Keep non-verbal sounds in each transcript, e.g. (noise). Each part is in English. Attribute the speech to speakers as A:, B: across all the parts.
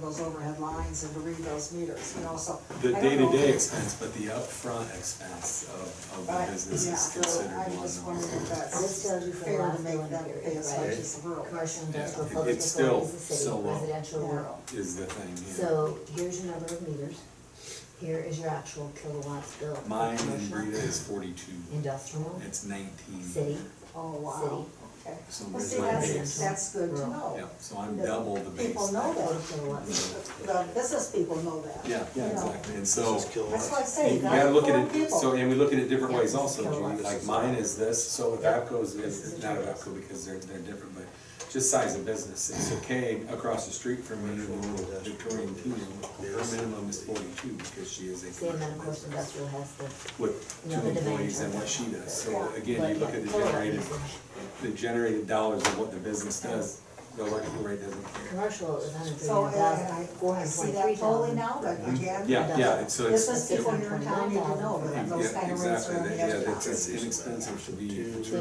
A: those overhead lines and to read those meters, you know, so.
B: The
A: I don't know if
B: day-to-day
A: it's-
B: expense, but the upfront expense of, of
A: Right,
B: the business
A: yeah.
B: is considered
A: I just
B: one.
A: wondered if that's.
B: number.
A: It's
C: This tells you for the
A: fair to
C: last
A: make
C: billing
A: them pay
C: period,
A: as much
C: right?
A: as the rural.
C: Commercial,
B: Yeah,
C: industrial,
B: it-
C: public
B: it's still
C: facilities, the
B: so
C: city,
B: low.
C: residential,
A: Yeah.
C: rural.
B: Is the thing, yeah.
C: So here's your number of meters, here is your actual kilowatts built. for
B: Mine and
C: commercial,
B: Rita is forty-two,
C: Industrial,
B: it's nineteen.
C: city,
A: Oh, wow, okay.
B: So
A: Well,
B: there's
A: see,
B: my
A: that's,
C: base.
A: that's good to
C: Rural.
B: Yeah,
A: know.
B: so I'm
A: The
B: double the base.
A: People know
C: total
A: that,
C: kilowatts.
A: the business people know that.
B: Yeah,
A: you
B: yeah,
A: know.
B: exactly, and so.
A: That's why I say,
B: You gotta look
A: not
B: at
A: for
B: it,
A: people.
B: so, and we look at it different
C: Yeah,
B: ways
C: this is
B: also,
C: kilowatts.
B: Julie, like mine is this, so with
C: Yeah.
B: APCO's
C: This is a
B: is, not
C: choice.
B: APCO because they're, they're different, but just size of business, it's okay across the street from me, the Victorian Kingdom, her minimum is forty-two because she is a
C: See, and then of
B: commercial
C: course
B: business
C: industrial has the.
B: with
C: you
B: two
C: know, the demand
B: employees and
C: charge.
B: what she does, so
A: Yeah.
B: again,
C: But
B: you look at the
C: kilowatt
B: generated,
C: usage.
B: the generated dollars of what the business does, the electrical rate doesn't care.
C: Commercial is hundred
A: So uh,
C: thirty-nine
A: I,
C: thousand,
A: I,
C: four
A: I
C: hundred
A: see
C: twenty-three
A: that totally
C: thousand.
A: now, but again.
B: Mm-hmm. Yeah, yeah, it's- so it's.
A: Business people in your town need to know that those
B: Yeah,
A: kind of rates are in
B: exactly,
A: the
B: yeah,
A: other
B: that's,
A: towns.
B: it's inexpensive to be.
C: So you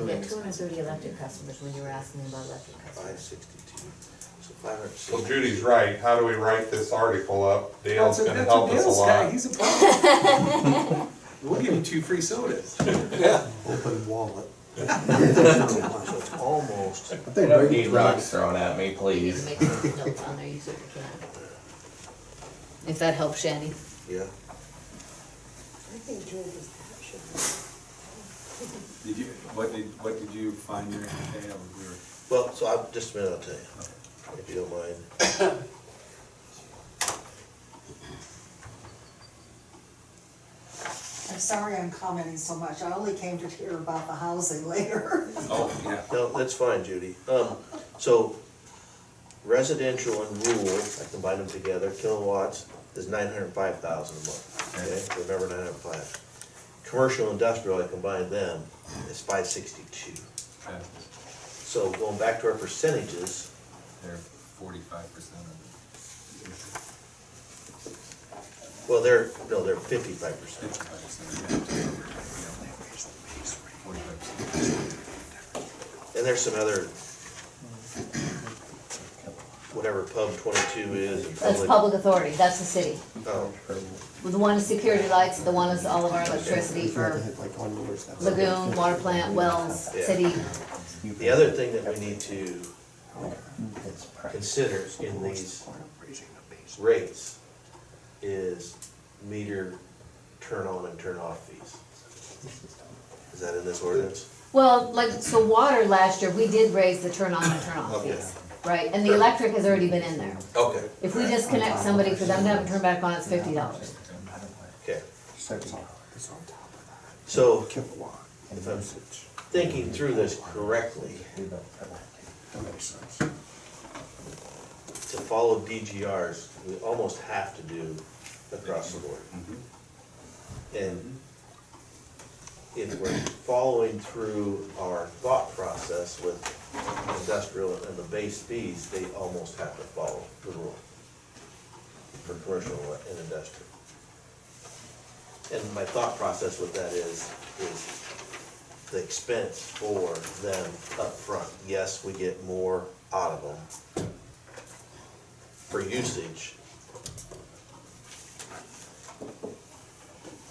C: get two hundred thirty electric customers when you were asking me about electric
D: Five
C: customers.
D: sixty-two, so five hundred
E: Well,
D: sixty.
E: Judy's right, how do we write this article up? Dale's
B: That's a-
E: gonna
B: that's a
E: help us a
B: Dale's guy.
E: lot.
B: He's a pro. (laughs) We'll give you two free sodas.
D: Open (laughs) wallet. So it's almost,
F: I think
G: I don't
F: Brady,
G: need rocks thrown at me,
C: You can
G: please.
C: make some notes on there, you certainly can. If that helps, Shandy.
D: yeah,
B: Did you, what did, what did you find there today? We were-
D: well, so I've, just a minute, I'll tell you, if you don't mind.
A: I'm sorry I'm commenting so much, I only came to hear about the housing (laughs) later.
B: Oh, yeah.
D: No, that's fine, Judy. Um, so residential and rural, I combine them together, kilowatts is nine hundred and five thousand a month, okay? Remember nine hundred and five. Commercial, industrial, I combine them, is five sixty-two.
B: Okay.
D: So going back to our percentages,
B: They're forty-five percent of
D: well, they're, no, they're fifty-five percent.
B: Fifty-five percent.
D: And there's some other, whatever pub twenty-two is. and
H: That's public authority, that's the city.
D: Oh,
H: Well, The one is security lights, the one is all of our electricity for
F: like one year's. that's-
H: lagoon, water plant, wells, city.
D: The other thing that we need to consider in these rates is meter turn on and turn off fees. Is that in this ordinance?
H: Well, like, so water last year, we did raise the turn on and turn off
D: Okay.
H: fees, right? And the electric has already been in there.
D: Okay.
H: If we disconnect somebody for them to have it turned back on, it's fifty dollars.
D: Okay,
F: It's on- it's on top of that.
D: so
F: Kilowatt and
D: If I'm-
F: usage,
D: thinking through this correctly,
F: that makes sense.
D: to follow DGRs, we almost have to do across the board. And if we're following through our thought process with industrial and the base fees, they almost have to follow the rule for commercial and industrial. And my thought process with that is, is the expense for them upfront. Yes, we get more out of them, for usage.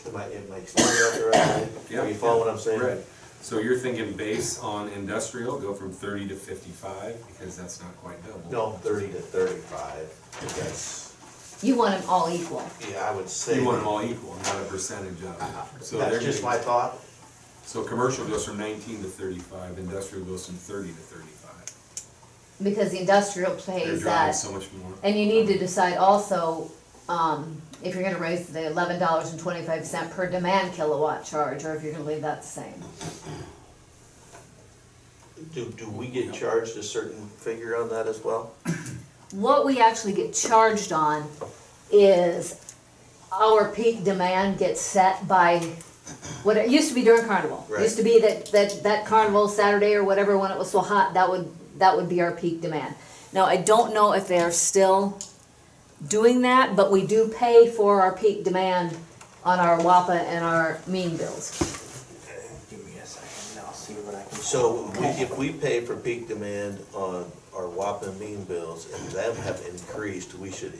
D: Am I, am I explaining that correctly? Are you following what I'm saying?
B: Right. So you're thinking base on industrial, go from thirty to fifty-five, because that's not quite double.
D: No, thirty to thirty-five, that's,
H: You want them all equal.
D: yeah, I would say.
B: You want them all equal, not a percentage of it. So they're
D: Uh-huh. That's just
B: gonna-
D: my thought,
B: So commercial goes from nineteen to thirty-five, industrial goes from thirty to thirty-five.
H: Because the industrial
B: They're
H: plays
B: driving
H: that.
B: so much more.
H: And you need to decide also, um, if you're gonna raise the eleven dollars and twenty-five cent per demand kilowatt charge, or if you're gonna leave that the same.
D: do, do we get charged a certain figure on that as well?
H: What we actually get charged on is our peak demand gets set by what it used to be during carnival. It Used to be that, that, that carnival Saturday or whatever, when it was so hot, that would, that would be our peak demand. Now, I don't know if they are still doing that, but we do pay for our peak demand on our WAPA and our mean bills.
F: Give me a second, and I'll see what I can.
D: So we- if we pay for peak demand on our WAPA mean bills and them have increased, we should